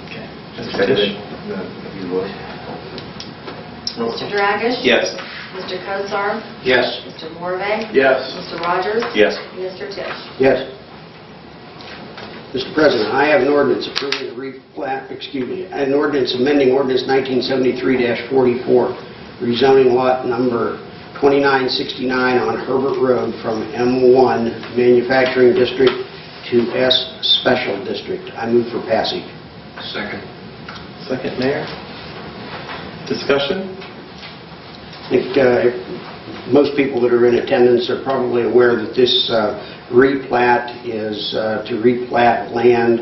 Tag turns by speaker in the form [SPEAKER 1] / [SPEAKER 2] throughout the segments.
[SPEAKER 1] Mr. Fish?
[SPEAKER 2] If you would.
[SPEAKER 3] Mr. Dragish?
[SPEAKER 1] Yes.
[SPEAKER 3] Mr. Cosar?
[SPEAKER 1] Yes.
[SPEAKER 3] Mr. Morve?
[SPEAKER 1] Yes.
[SPEAKER 3] Mr. Rogers?
[SPEAKER 1] Yes.
[SPEAKER 3] Mr. Tisch?
[SPEAKER 4] Yes. Mr. President, I have an ordinance approving a replat, excuse me, an ordinance amending ordinance 1973-44, rezoning lot number 2969 on Herbert Road from M1 Manufacturing District to S Special District. I move for passage.
[SPEAKER 2] Second.
[SPEAKER 1] Second, Mayor. Discussion?
[SPEAKER 4] I think uh, most people that are in attendance are probably aware that this uh, replat is uh, to replat land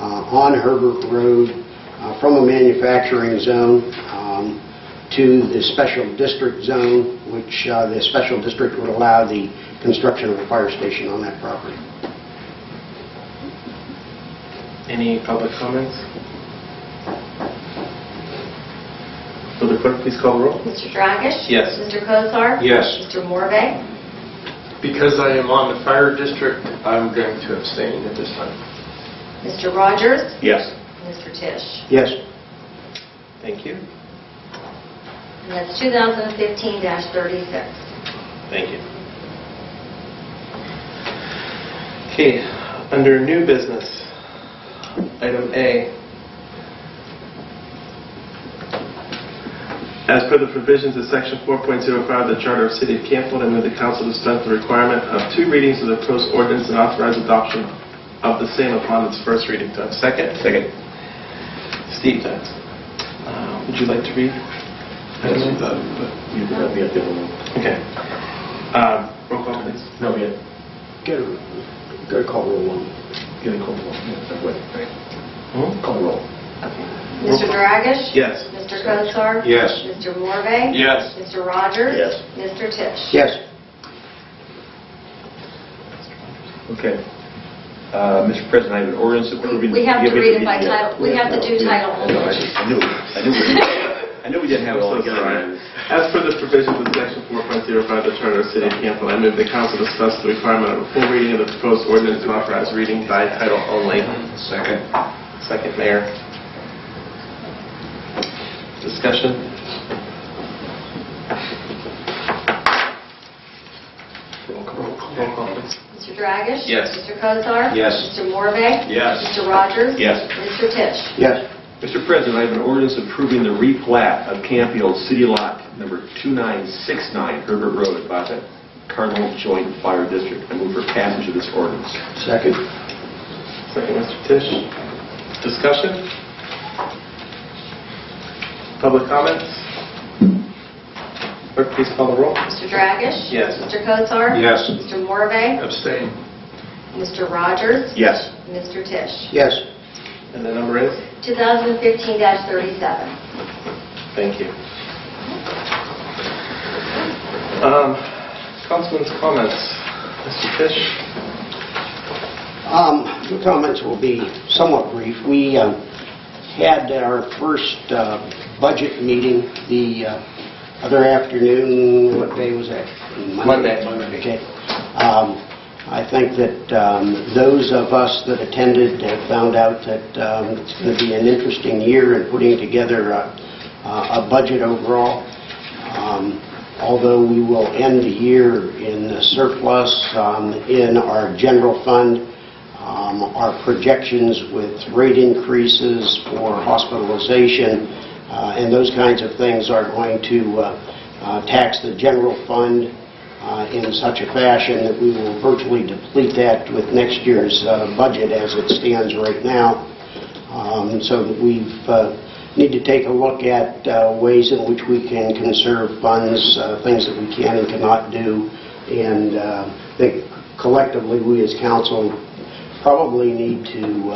[SPEAKER 4] uh, on Herbert Road uh, from a manufacturing zone um, to the special district zone, which uh, the special district would allow the construction of a fire station on that property.
[SPEAKER 1] Any public comments? Will the clerk please call the roll?
[SPEAKER 3] Mr. Dragish?
[SPEAKER 1] Yes.
[SPEAKER 3] Mr. Cosar?
[SPEAKER 2] Yes.
[SPEAKER 3] Mr. Morve?
[SPEAKER 2] Because I am on the fire district, I'm going to abstain at this time.
[SPEAKER 3] Mr. Rogers?
[SPEAKER 1] Yes.
[SPEAKER 3] Mr. Tisch?
[SPEAKER 4] Yes.
[SPEAKER 1] Thank you.
[SPEAKER 3] And that's 2015-36.
[SPEAKER 1] Thank you. Okay, under new business, item A. As per the provisions of section 4.05 of the Charter of the City of Campbell, I move the council dispense the requirement of two readings of the proposed ordinance and authorize adoption of the same upon its first reading. Do I have a second? Second. Steve does. Uh, Would you like to read?
[SPEAKER 2] You can let me at the moment.
[SPEAKER 1] Okay. Um, Roll call, please.
[SPEAKER 2] No, we had,
[SPEAKER 4] Go to go to call roll one.
[SPEAKER 2] get a call roll. Yeah, wait, wait.
[SPEAKER 1] Hmm?
[SPEAKER 2] Call roll.
[SPEAKER 3] Mr. Dragish?
[SPEAKER 1] Yes.
[SPEAKER 3] Mr. Cosar?
[SPEAKER 2] Yes.
[SPEAKER 3] Mr. Morve?
[SPEAKER 2] Yes.
[SPEAKER 3] Mr. Rogers?
[SPEAKER 2] Yes.
[SPEAKER 3] Mr. Tisch?
[SPEAKER 4] Yes.
[SPEAKER 5] Okay. Uh, Mr. President, I have an ordinance approving...
[SPEAKER 3] We have to
[SPEAKER 5] Yeah, we-
[SPEAKER 3] read it by
[SPEAKER 5] yeah.
[SPEAKER 3] title. We have to do
[SPEAKER 5] uh, Yeah.
[SPEAKER 3] title only.
[SPEAKER 5] No, I I knew, I knew, we- I knew we didn't have it all
[SPEAKER 1] So
[SPEAKER 5] together.
[SPEAKER 1] sorry. As per the provisions of section 4.05 of the Charter of the City of Campbell, I move the council dispense the requirement of a full reading of the proposed ordinance and authorize reading by title only.
[SPEAKER 2] Second.
[SPEAKER 1] Second, Mayor. Discussion? Roll call, roll call, please.
[SPEAKER 3] Mr. Dragish?
[SPEAKER 1] Yes.
[SPEAKER 3] Mr. Cosar?
[SPEAKER 5] Yes.
[SPEAKER 3] Mr. Morve?
[SPEAKER 5] Yes.
[SPEAKER 3] Mr. Rogers?
[SPEAKER 5] Yes.
[SPEAKER 3] Mr. Tisch?
[SPEAKER 4] Yes.
[SPEAKER 5] Mr. President, I have an ordinance approving the replat of Campfield City Lot Number 2969 Herbert Road by the Cardinal Joint Fire District. I move for passage of this ordinance.
[SPEAKER 4] Second.
[SPEAKER 1] Second, Mr. Tisch. Discussion? Public comments? Clerk, please call the roll.
[SPEAKER 3] Mr. Dragish?
[SPEAKER 1] Yes.
[SPEAKER 3] Mr. Cosar?
[SPEAKER 5] Yes.
[SPEAKER 3] Mr. Morve?
[SPEAKER 2] Abstain.
[SPEAKER 3] Mr. Rogers?
[SPEAKER 5] Yes.
[SPEAKER 3] Mr. Tisch?
[SPEAKER 4] Yes.
[SPEAKER 1] And the number is?
[SPEAKER 3] 2015-37.
[SPEAKER 1] Thank you. Um, Councilman's comments. Mr. Fish?
[SPEAKER 4] Um, The comments will be somewhat brief. We um, had our first uh, budget meeting the uh, other afternoon, what day was that?
[SPEAKER 1] Monday.
[SPEAKER 4] Okay. Um, I think that um, those of us that attended have found out that um, it's going to be an interesting year in putting together a- a budget overall. Um, Although we will end the year in the surplus um, in our general fund, um, our projections with rate increases for hospitalization uh, and those kinds of things are going to uh, uh, tax the general fund uh, in such a fashion that we will virtually deplete that with next year's uh, budget as it stands right now. Um, So we need to take a look at uh, ways in which we can conserve funds, uh, things that we can and cannot do, and uh, I think collectively, we as council probably need to uh,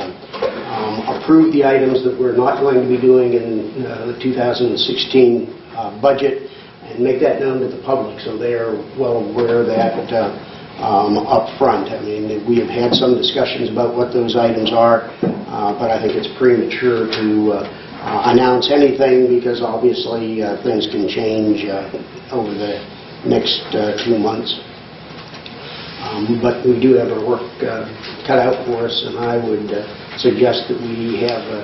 [SPEAKER 4] um, approve the items that we're not going to be doing in uh, the 2016 uh, budget, and make that known to the public, so they're well aware of that uh, um, up front. I mean, we have had some discussions about what those items are, uh, but I think it's premature to uh, uh, announce anything, because obviously, uh, things can change uh, over the next uh, two months. Um, But we do have our work uh, cut out for us, and I would uh, suggest that we have a